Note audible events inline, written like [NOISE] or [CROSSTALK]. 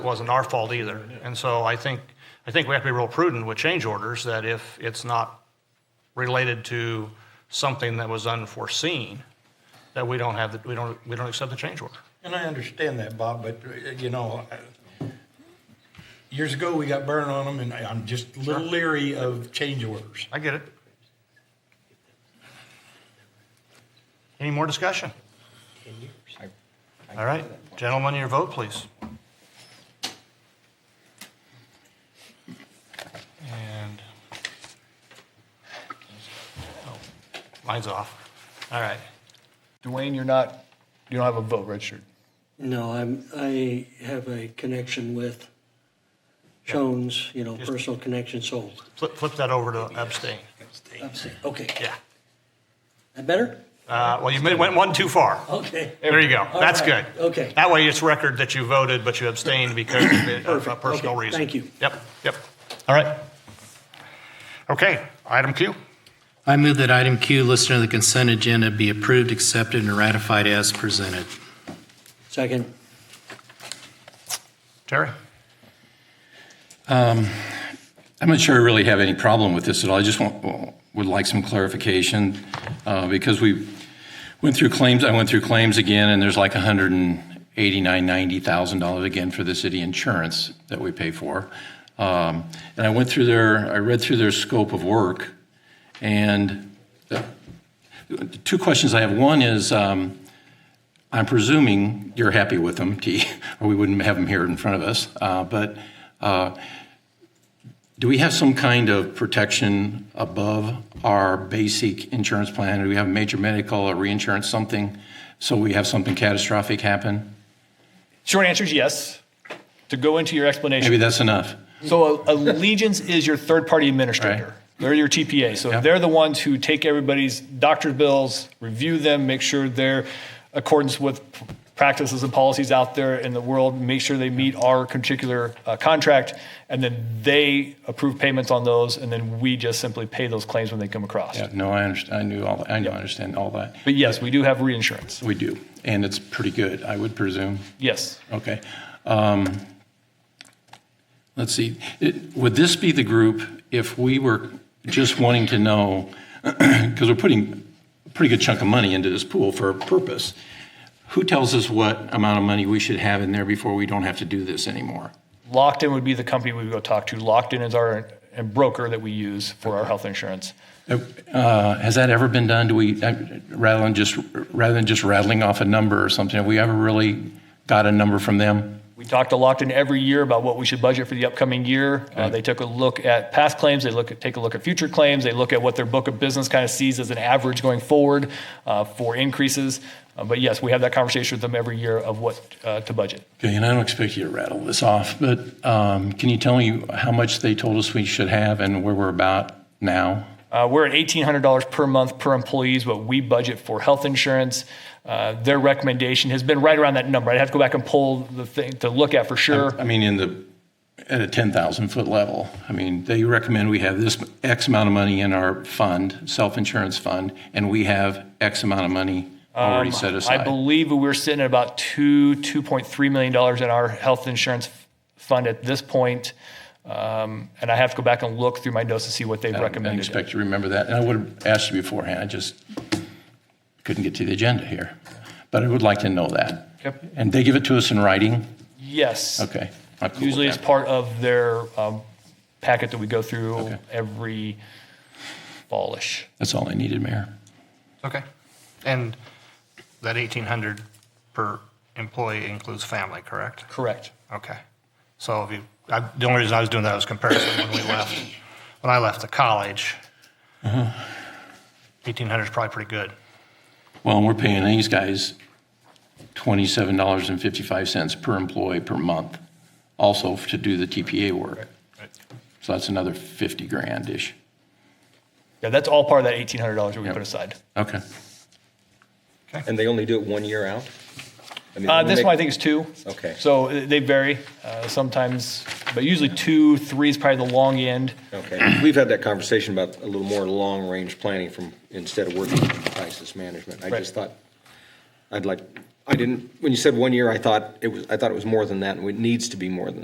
wasn't our fault either. And so I think, I think we have to be real prudent with change orders, that if it's not related to something that was unforeseen, that we don't have, the- we don't, we don't accept the change order. And I understand that, Bob, but, uh, you know, I- years ago, we got burned on them, and I- I'm just a little leery of change orders. I get it. Any more discussion? All right, gentlemen, your vote, please. And, oh, mine's off. All right. Dwayne, you're not, you don't have a vote registered. No, I'm, I have a connection with Jones, you know, personal connection, so, Flip, flip that over to abstain. okay. Yeah. That better? Uh, well, you made- went one too far. Okay. There you go. All That's good. right. Okay. That way it's record that you voted, but you abstained because of a- of a Perfect. personal Okay. reason. Thank you. Yep, yep. All right. Okay, item Q. I move that item Q listed on the consent agenda be approved, accepted, and ratified as presented. Second, Terry? I'm not sure I really have any problem with this at all. I just want, would like some clarification uh, because we went through claims, I went through claims again, and there's like $189,000, $90,000 again for the city insurance that we pay for. Um, And I went through their, I read through their scope of work, and the- the two questions I have. One is, um, I'm presuming you're happy with them, T, [LAUGHS] or we wouldn't have them here in front of us. Uh, But uh, do we have some kind of protection above our basic insurance plan? Do we have major medical or reinsurance, something, so we have something catastrophic happen? Short answer is yes. To go into your Maybe explanation, that's enough. so uh, Allegiance is your third-party administrator. Right. They're your TPA, so Yeah. they're the ones who take everybody's doctor bills, review them, make sure they're accordance with practices and policies out there in the world, make sure they meet our particular uh, contract, and then they approve payments on those, and then we just simply pay those claims when they come across. Yeah, no, I understand, I knew all, that. I know, I understand all that. But yes, we do have reinsurance. We do, and it's pretty good, I would presume. Yes. Okay. Um, Let's see, It- would this be the group, if we were just wanting to know, [CLEARS THROAT] because we're putting a pretty good chunk of money into this pool for a purpose, who tells us what amount of money we should have in there before we don't have to do this anymore? Locked in would be the company we would go talk to. Locked in is our and broker that we use for our health insurance. Uh, Has that ever been done? Do we, uh, rather than just, rather than just rattling off a number or something, have we ever really got a number from them? We talk to Locked in every year about what we should budget for the upcoming year. Uh, they took a look at past claims. They look at take a look at future claims. They look at what their book of business kind of sees as an average going forward uh, for increases. Uh, but yes, we have that conversation with them every year of what uh, to budget. Okay, and I don't expect you to rattle this off, but um, can you tell me how much they told us we should have and where we're about now? Uh, we're at $1,800 per month per employee is what we budget for health insurance. Uh, their recommendation has been right around that number. I'd have to go back and pull the thing to look at for sure. I mean, in the, at a 10,000 foot level. I mean, they recommend we have this X amount of money in our fund, self-insurance fund, and we have X amount of money already set Um, I aside. believe we're sitting at about two, $2.3 million in our health insurance f- fund at this point. Um, and I have to go back and look through my notes to see what they've I don't- I didn't recommended. expect you to remember that, and I would have asked you beforehand, I just couldn't get to the agenda here. But I would like to know that. Yep. And they give it to us in writing? Yes. Okay. I'm cool with Usually it's that. part of their um, packet that we go through Okay. every fallish. That's all I needed, Mayor. Okay. And that 1,800 per employee includes family, correct? Correct. Okay. So if you, I, the only reason I was doing that was comparison when we left, when I left the college. 1,800 is probably pretty good. Well, and we're paying these guys twenty-seven dollars and fifty-five cents per employee per month, also to do the TPA work. So that's another fifty grand-ish. Yeah, that's all part of that $1,800 that we put aside. Okay. And they only do it one year out? I mean, Uh, they this make- one I think is two. Okay. So uh, they vary uh, sometimes, but usually two, three is probably the long end. Okay, we've had that conversation about a little more long-range planning from, instead of working on crisis management. I Right. just thought, I'd like, I didn't, when you said one year, I thought it was, I thought it was more than that, and it needs to be more than